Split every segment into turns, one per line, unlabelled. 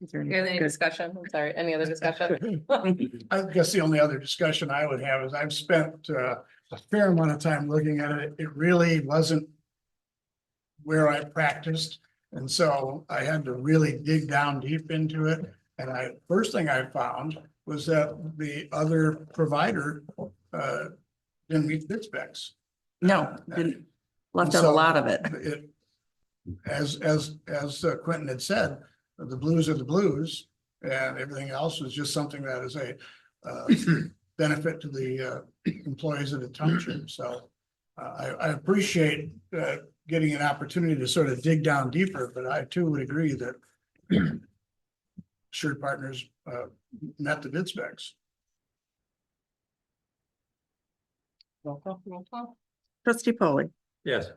Is there any-
Any
good.
discussion? I'm sorry, any other discussion?
I guess the only other discussion I would have is I've spent uh, a fair amount of time looking at it. It really wasn't where I practiced. And so I had to really dig down deep into it. And I, first thing I found was that the other provider uh, didn't meet the specs.
No, didn't, left out a
So-
lot of it.
It, as, as, as uh, Quentin had said, the blues are the blues and everything else is just something that is a uh, benefit to the uh, employees of the township. So uh, I, I appreciate uh, getting an opportunity to sort of dig down deeper, but I too would agree that Assured Partners uh, met the bid specs.
Roll call, roll call.
Trustee Polly,
Yes.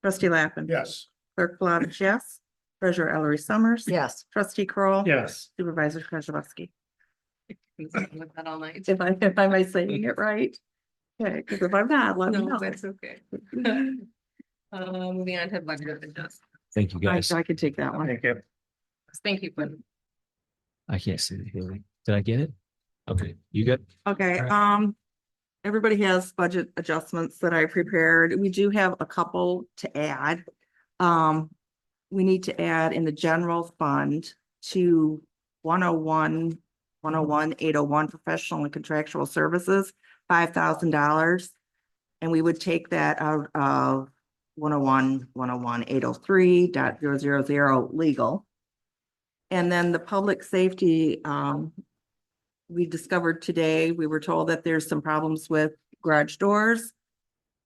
trustee Lappin.
Yes.
Clerk Plavich, yes. Treasurer Ellery Summers.
Yes.
Trustee Kroll,
Yes.
Supervisor Kozibowski.
Been sitting with that all night.
If I, if I'm saying it right. Okay, because if I'm not, let me
No,
know.
that's okay. Uh, moving on to budget adjustments.
Thank you,
I,
guys.
I can take that one.
Thank you.
Thank you, Quinn.
I can't see the hearing. Did I get it? Okay, you good?
Okay,
Alright.
um, everybody has budget adjustments that I prepared. We do have a couple to add. Um, we need to add in the general fund to 101, 101, 801 professional and contractual services, five thousand dollars. And we would take that out of 101, 101, 803 dot zero zero zero legal. And then the public safety, um, we discovered today, we were told that there's some problems with garage doors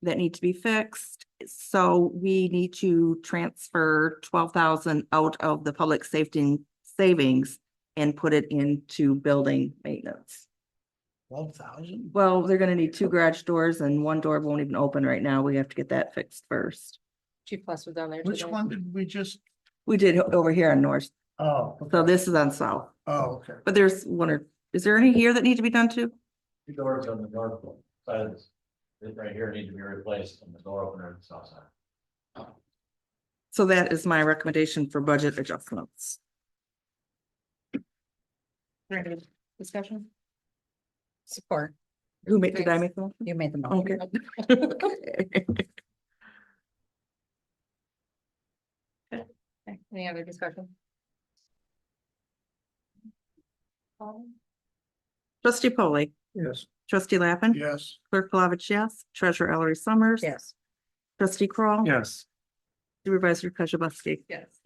that need to be fixed. So we need to transfer twelve thousand out of the public safety savings and put it into building maintenance.
Twelve thousand?
Well, they're gonna need two garage doors and one door won't even open right now. We have to get that fixed first.
Chief Plus was down there.
Which
today.
one did we just?
We did over here on North,
Oh,
so this is on South,
oh, okay.
but there's one or, is there any here that need to be done too?
Two doors on the north side of this, this right here need to be replaced and the door opener on the south side.
So that is my recommendation for budget adjustments.
Any Discussion? Support.
Who made, did I
Thanks.
make the motion?
You made the motion.
Okay.
Okay, Any other discussion? Um,
Trustee Polly,
Yes.
trustee Lappin,
Yes.
clerk Plavich, yes, treasurer Ellery Summers.
Yes.
Trustee Kroll,
Yes.
Supervisor Kozibowski.
Yes.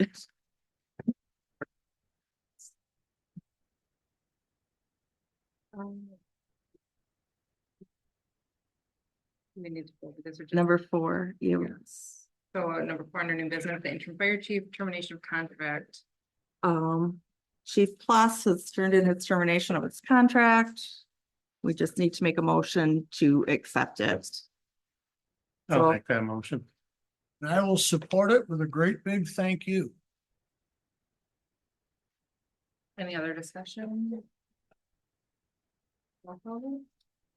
Um, We need to go because we're just.
Number four, you,
Yes. So uh, number four, under new business, the interim fire chief termination of contract.
um, Chief Plus has turned in its termination of its contract. We just need to make a motion to accept it.
I'll
So,
make that motion.
And I will support it with a great big thank you.
Any other discussion? Roll call vote?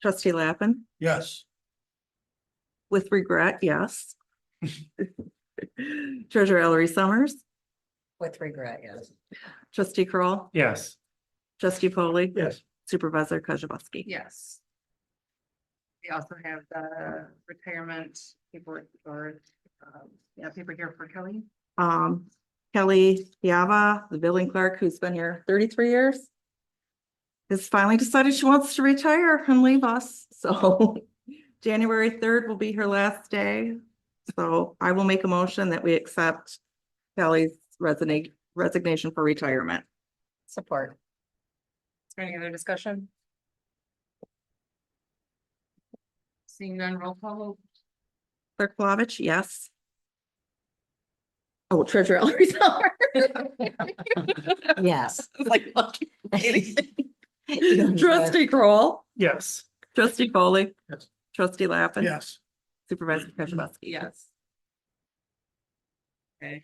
trustee Lappin,
Yes.
with regret, yes. Treasurer Ellery Summers,
With regret, yes.
trustee Kroll,
Yes.
trustee Polly,
Yes.
supervisor Kozibowski.
Yes. We also have the retirement paperwork or, um, yeah, paper here for Kelly.
um, Kelly Yava, the billing clerk who's been here thirty-three years. Has finally decided she wants to retire and leave us, so January third will be her last day. So I will make a motion that we accept Kelly's resignation, resignation for retirement.
Support.
Is there any other discussion? Seeing none, roll call vote.
Clerk Flavich, yes. Oh, Treasurer Ellery Summers.
Yes.
Like, fuck.
You-
Trustee Kroll,
Yes.
trustee Foley,
Yes.
trustee Lappin.
Yes.
Supervisor Kozibowski.
Yes. Okay.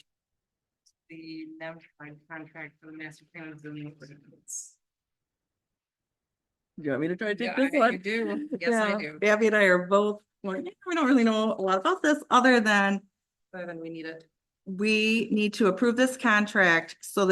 The non-defined contract for the master plan of zoning ordinance.
Do you want me to try to
Yeah,
take
I
this one?
do. Yes, I
Yeah.
do.
Abby and I are both, like, "Yeah, we don't really know a lot about this, other than
So then we need it.
we need to approve this contract so that.